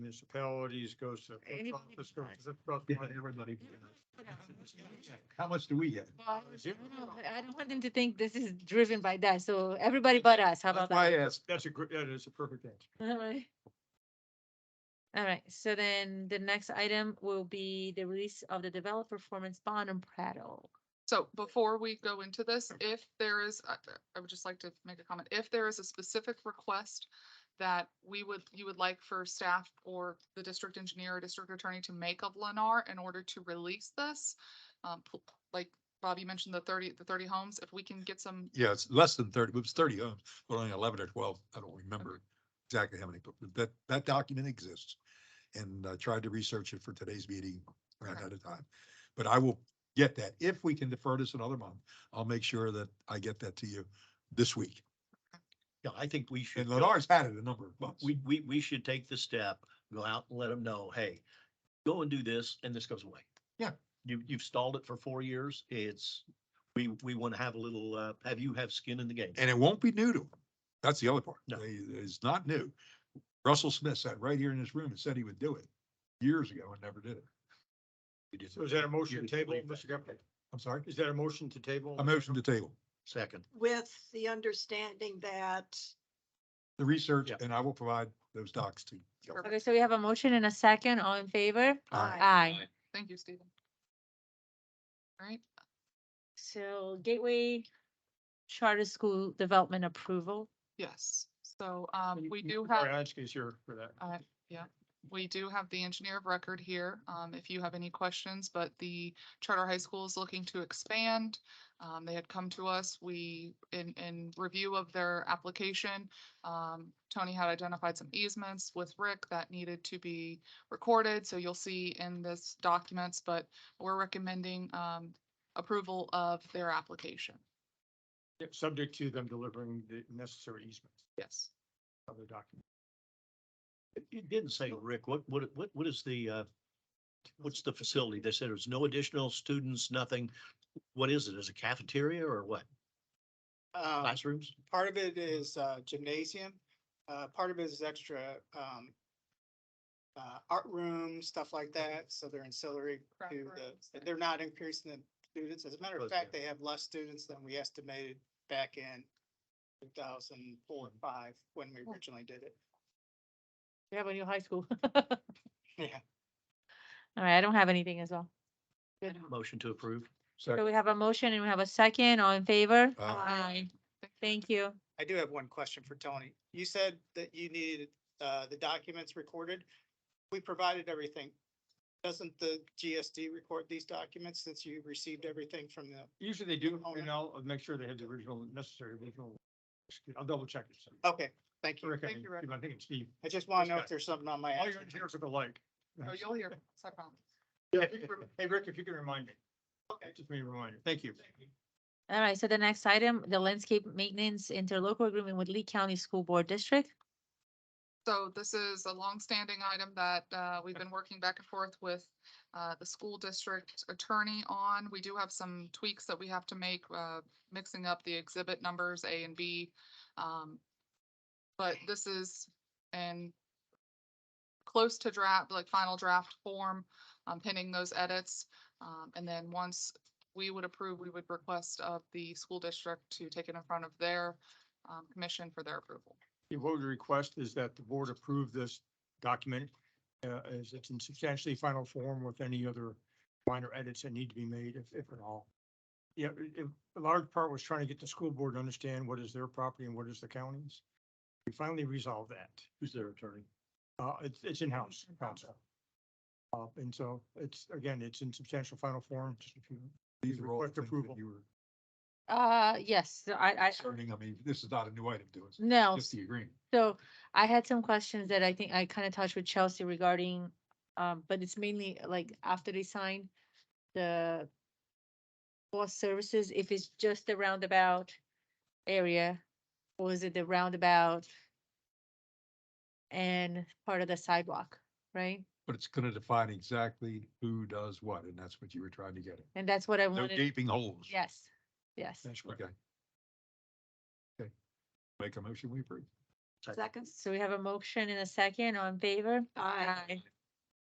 municipalities, goes to. the post Anybody office, can buy. goes to the trust Yeah, fund. everybody. But How much do we get? I don't know, I don't want them to think this is driven by that, so everybody but us, how That's about that? why I asked. That's a, gr- that is a perfect answer. Alright. Alright, so then the next item will be the release of the developed performance bond on Prattle. So before we go into this, if there is, I- I would just like to make a comment, if there is a specific request that we would, you would like for staff or the district engineer, or district attorney to make of Lennar in order to release this, um, pl- like Bobby mentioned, the thirty, the thirty homes, if we can get some, Yeah, it's less than thirty, it was thirty homes, but only eleven or twelve. I don't remember exactly how many, but that, that document exists. And I tried to research it for today's meeting, ran Okay. out of time. But I will get that. If we can defer this another month, I'll make sure that I get that to you this week. Yeah, I think we should. And go- Lennar's had it a number of months. We, we, we should take the step, go out and let them know, hey, go and do this and this goes away. Yeah. You, you've stalled it for four years. It's, we, we want to have a little, uh, have you have skin in the game. And it won't be new to them. That's the other part. No. They- It's not new. Russell Smith sat right here in this room and said he would do it years ago and never did it. You just- So is that a motion you to table, leave that. Mr. Gephardt? I'm sorry, Is that a motion to table? a motion to table, Second, with the understanding that the research, Yeah. and I will provide those docs to. you. Okay, so we have a motion and a second, all in favor? Aye. Aye. thank you, Stephen. All right, So Gateway Charter School Development Approval. yes, so, um, we do have. Ariansky is here for that. Uh, yeah, we do have the engineer of record here, um, if you have any questions, but the charter high school is looking to expand. Um, they had come to us, we, in, in review of their application, um, Tony had identified some easements with Rick that needed to be recorded, so you'll see in this documents, but we're recommending, um, approval of their application, Yeah, Subject to them delivering the necessary easements yes. of the document. you didn't say, Rick, what, what, what, what is the, uh, what's the facility? They said there's no additional students, nothing. What is it? Is it cafeteria or what? Uh, Classrooms? part of it Mm-hmm. is, uh, gymnasium, uh, part of it is extra, um, uh, art room, stuff like that, so they're ancillary Mm-hmm. Craft to rooms the, and- they're not increasing the students, as a matter of Okay. fact, they have less students than we estimated back in two thousand four Mm-hmm. and five, when we Oh. originally did it. We have a new high school. Yeah. Alright, I don't have anything as well. Good. Motion to approve. So we have a motion and we have a second, all in favor? um, Uh, Aye. Thank you. I do have one question for Tony. You said that you needed, uh, the documents recorded. We provided everything. Doesn't the GSD record these documents since you received everything from the Usually they do, Oh, and yeah. I'll make sure they have the original, necessary original. I'll double check it. so. Okay, Oh, thank you. Rick, I Thank you, Rick. I think it's Steve. I just want to know Okay. if there's something on my. All action. your engineers are alike. Oh, you'll hear, it's not a problem. Yeah, if you can- Hey, Rick, if you can remind me. Okay. Just me a reminder. Thank you. Alright, so the next item, the landscape maintenance interlocal agreement with Lee County School Board District. So this is a longstanding item that uh, we've been working back and forth with uh, the school district attorney on. We do have some tweaks that we have to make, uh, mixing up the exhibit numbers A and B. Um, But this is in close to draft, like final draft form, um, pending those edits. Um, And then once we would approve, we would request of the school district to take it in front of their um, commission for their approval. Yeah, What we request is that the board approve this document uh, as it's in substantially final form with any other minor edits that need to be made, if, if at all. Yeah, it- it- a large part was trying to get the school board to understand what is their property and what is the county's. We finally resolved that. Who's their attorney? Uh, it's, it's in-house counsel. Uh, and so it's, again, it's in substantial final form, just if you, These are all the Request things that approval. You were Uh, yes, so I, I, concerning, I mean, this is not a new item to us, no, just the agreement. so I had some questions that I think I kind of touched with Chelsea regarding, um, but it's mainly like after they sign the bus services, if it's just the roundabout area, or is it the roundabout and part of the sidewalk, right? But it's gonna define exactly who does what, and that's what you were trying to get at. And that's what I No wanted. gaping holes. Yes, yes. that's correct. Okay. Okay. Make a motion, we approve. Second? So we have a motion in a second on favor. Aye. Aye.